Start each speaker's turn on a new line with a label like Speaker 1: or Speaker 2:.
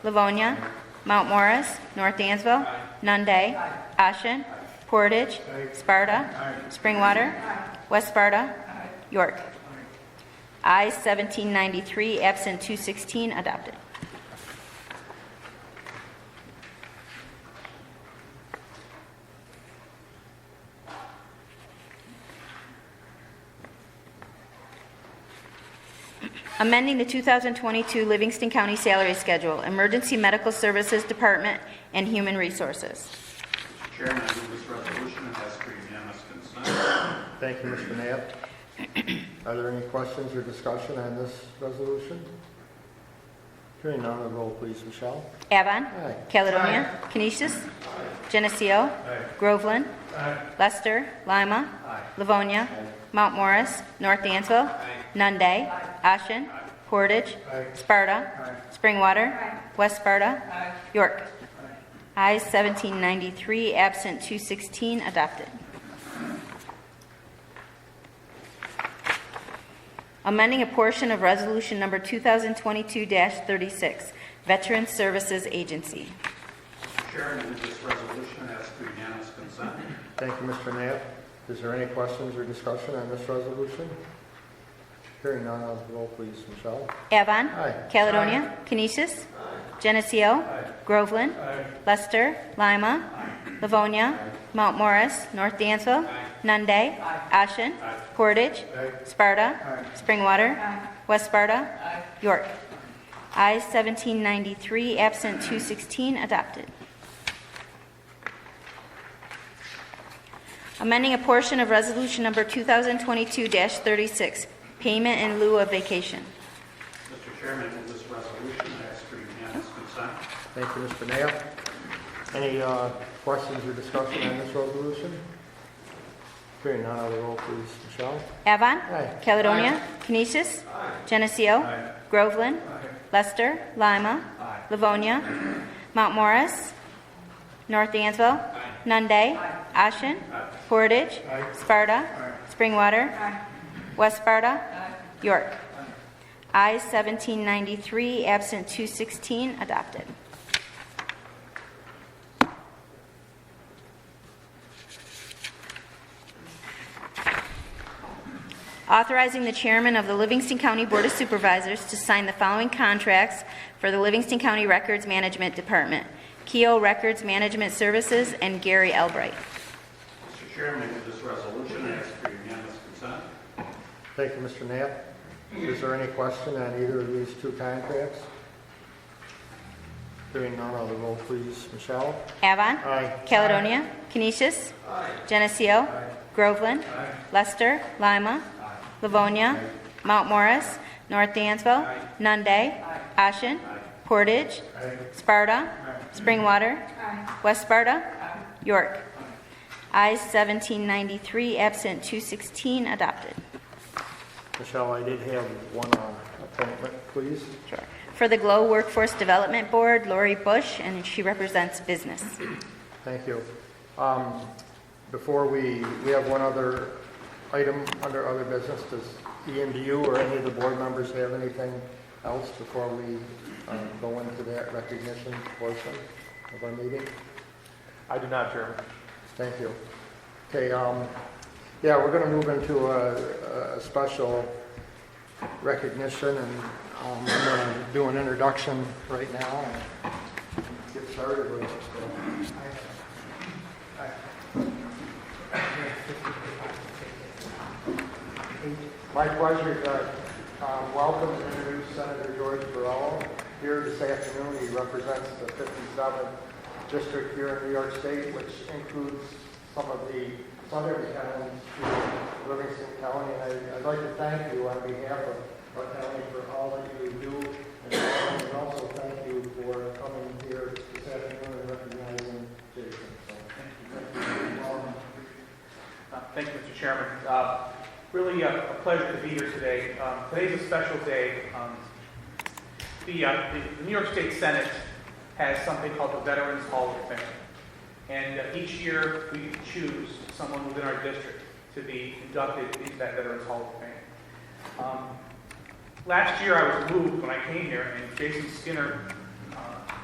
Speaker 1: Livonia, Mount Morris, North Dansville, Nunde, Ashen, Portage, Sparta, Springwater, West Sparta, York. I 1793, absent 216, adopted. amending the 2022 Livingston County Salary Schedule, Emergency Medical Services Department and Human Resources.
Speaker 2: Mr. Chairman, I move this resolution and ask for unanimous consent.
Speaker 3: Thank you, Mr. Knapp. Are there any questions or discussion on this resolution? Hearing none, the roll please, Michelle.
Speaker 1: Avon.
Speaker 3: Aye.
Speaker 1: Caledonia. Canisius. Geneseo. Groveland. Lester. Lima. Livonia. Mount Morris. North Dansville. Nunde. Ashen. Portage. Sparta. Springwater. West Sparta. York. I 1793, absent 216, adopted. amending a portion of Resolution Number 2022-36, Veteran Services Agency.
Speaker 2: Mr. Chairman, I move this resolution and ask for unanimous consent.
Speaker 3: Thank you, Mr. Knapp. Is there any questions or discussion on this resolution? Hearing none, the roll please, Michelle.
Speaker 1: Avon.
Speaker 3: Aye.
Speaker 1: Caledonia. Canisius. Geneseo. Groveland. Lester. Lima. Livonia. Mount Morris. North Dansville. Nunde. Ashen. Portage. Sparta. Springwater. West Sparta. York. I 1793, absent 216, adopted. Amending a portion of Resolution Number 2022-36, Payment in lieu of vacation.
Speaker 2: Mr. Chairman, I move this resolution and ask for unanimous consent.
Speaker 3: Thank you, Mr. Knapp. Any uh, questions or discussion on this resolution? Hearing none, the roll please, Michelle.
Speaker 1: Avon.
Speaker 3: Aye.
Speaker 1: Caledonia. Canisius. Geneseo. Groveland. Lester. Lima. Livonia. Mount Morris. North Dansville. Nunde. Ashen. Portage. Sparta. Springwater. West Sparta. York. I 1793, absent 216, adopted. authorizing the chairman of the Livingston County Board of Supervisors to sign the following contracts for the Livingston County Records Management Department, Keough Records Management Services, and Gary Albright.
Speaker 2: Mr. Chairman, I move this resolution and ask for unanimous consent.
Speaker 3: Thank you, Mr. Knapp. Is there any question on either of these two contracts? Hearing none, the roll please, Michelle.
Speaker 1: Avon.
Speaker 3: Aye.
Speaker 1: Caledonia. Canisius. Geneseo. Groveland. Lester. Lima. Livonia. Mount Morris. North Dansville. Nunde. Ashen. Portage. Sparta. Springwater. West Sparta. York. I 1793, absent 216, adopted.
Speaker 3: Michelle, I did have one uh, appointment, please.
Speaker 1: For the Glow Workforce Development Board, Lori Bush, and she represents business.
Speaker 3: Thank you. Um, Before we, we have one other item under other business. Does Ian, do you or any of the board members have anything else before we um, go into that recognition portion of our meeting?
Speaker 4: I do not, Chairman.
Speaker 3: Thank you. Okay, um, yeah, we're gonna move into a, a special recognition and, um, I'm gonna do an introduction right now and get started with it. so. My pleasure to, um, welcome and introduce Senator George Burrell. Here this afternoon, he represents the 57th district here in New York State, which includes some of the southern towns to Livingston County. And I- I'd like to thank you on behalf of our county for all that you do. And also thank you for coming here this afternoon and recognizing Jason. So, thank you. Welcome.
Speaker 4: Uh, Thank you, Mr. Chairman. Uh, Really uh, a pleasure to be here today. Um, Today's a special day. Um, The uh, the- the New York State Senate has something called the Veterans Hall of Fame. And uh, each year, we choose someone within our district to be inducted into that Veterans Hall of Fame. Um, Last year, I was moved when I came here, and Jason Skinner